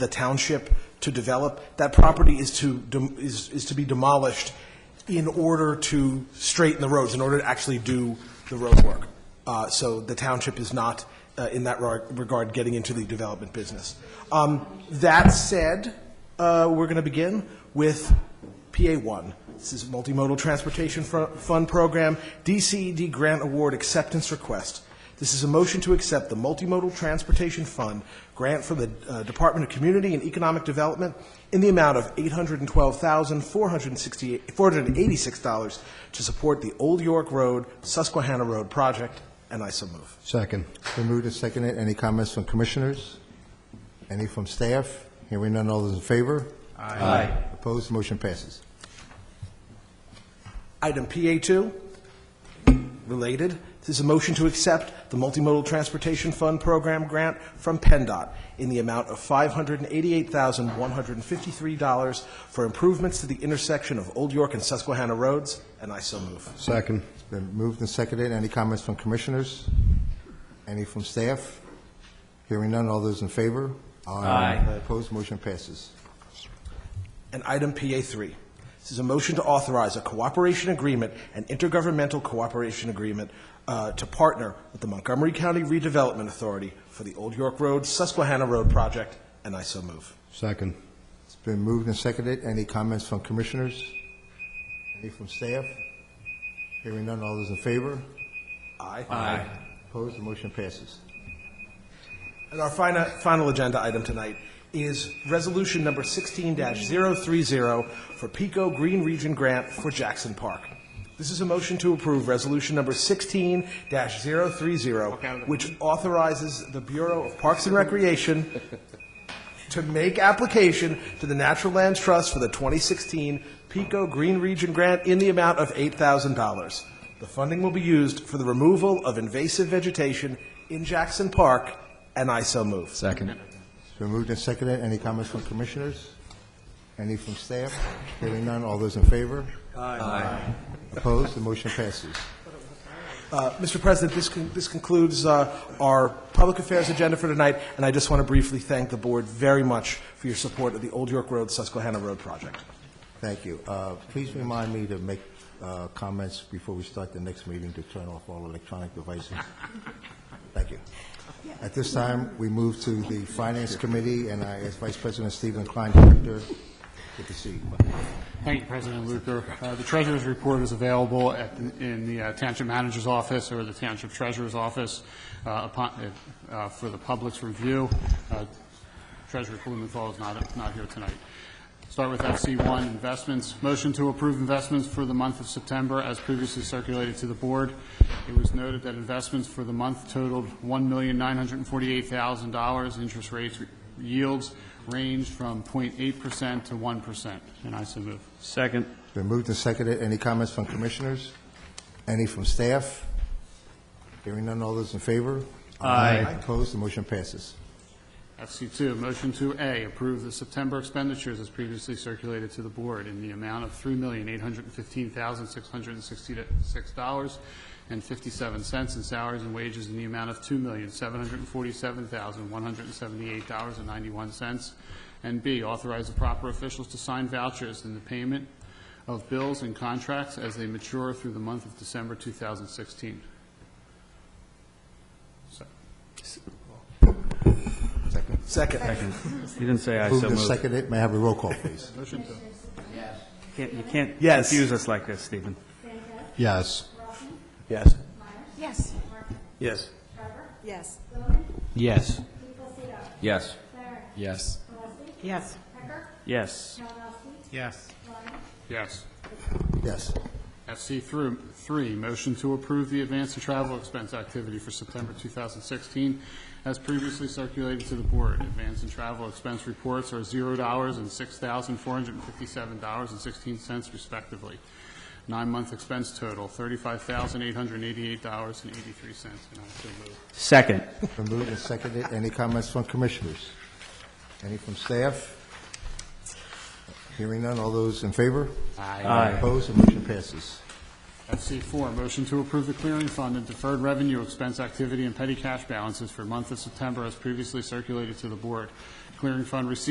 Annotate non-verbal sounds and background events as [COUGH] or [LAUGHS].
the township to develop. That property is to, dem- is is to be demolished in order to straighten the roads, in order to actually do the road work. Uh, So the township is not, uh, in that reg- regard, getting into the development business. Um, That said, uh, we're going to begin with PA1. This is Multimodal Transportation Fro- Fund Program, DCED Grant Award Acceptance Request. This is a motion to accept the Multimodal Transportation Fund grant from the uh, Department of Community and Economic Development in the amount of $812,486 to support the Old York Road, Susquehanna Road project, and I so move. Second. Been moved and seconded. Any comments from commissioners? Any from staff? Hearing none, all those in favor? Aye. Opposed, motion passes. Item PA2, related, this is a motion to accept the Multimodal Transportation Fund Program grant from PennDOT in the amount of $588,153 for improvements to the intersection of Old York and Susquehanna Roads, and I so move. Second. Been moved and seconded. Any comments from commissioners? Any from staff? Hearing none, all those in favor? Aye. Opposed, motion passes. And item PA3, this is a motion to authorize a cooperation agreement, an intergovernmental cooperation agreement, uh, to partner with the Montgomery County Redevelopment Authority for the Old York Road, Susquehanna Road project, and I so move. Second. It's been moved and seconded. Any comments from commissioners? Any from staff? Hearing none, all those in favor? Aye. Opposed, the motion passes. And our final, final agenda item tonight is resolution number sixteen 30 for Pico Green Region Grant for Jackson Park. This is a motion to approve resolution number sixteen 30 which authorizes the Bureau of Parks and Recreation to make application to the Natural Lands Trust for the twenty sixteen Pico Green Region Grant in the amount of eight thousand dollars. The funding will be used for the removal of invasive vegetation in Jackson Park, and I so move. Second. It's been moved and seconded. Any comments from commissioners? Any from staff? Hearing none, all those in favor? Aye. Opposed, the motion passes. Uh, Mr. President, this con- this concludes uh, our public affairs agenda for tonight, and I just want to briefly thank the board very much for your support of the Old York Road Susquehanna Road project. Thank you. Uh, Please remind me to make uh, comments before we start the next meeting to turn off all electronic devices. Thank you. At this time, we move to the Finance Committee, and I ask Vice President Stephen Klein, Director, to proceed. Thank you, President Luker. Uh, The treasurer's report is available at, the- in the uh, township manager's office or the township treasurer's office uh, upon, uh, for the public's review. Uh, Treasurer Blumenthal is not, not here tonight. Start with FC1, investments. Motion to approve investments for the month of September as previously circulated to the board. It was noted that investments for the month totaled $1,948,000. Interest rates, yields ranged from 0.8% to 1%. And I so move. Second. It's Been moved and seconded. Any comments from commissioners? Any from staff? Hearing none, all those in favor? Aye. Opposed, the motion passes. FC2, motion to A, approve the September expenditures as previously circulated to the board in the amount of $3,815,666.57 in salaries and wages in the amount of $2,747,178.91. And B, authorize the proper officials to sign vouchers in the payment of bills and contracts as they mature through the month of December 2016. Second. Second. You didn't say I Moved so and moved. seconded. May I have a roll call, [LAUGHS] please? Motion to Can't- You can't Yes. confuse us like this, Stephen. Yes. Yes. Yes. Yes. Yes. Yes. Yes. Yes. Yes. Yes. Yes. Yes. FC through- 3, motion to approve the advance and travel expense activity for September 2016 as previously circulated to the board. Advance and travel expense reports are $0 and $6,457.16 respectively. Nine-month expense total, $35,888.83. And I so move. Second. Been moved and seconded. Any comments from commissioners? Any from staff? Hearing none, all those in favor? Aye. Opposed, the motion passes. FC4, motion to approve the clearing fund and deferred revenue expense activity and petty cash balances for month of September as previously circulated to the board. Clearing fund receipts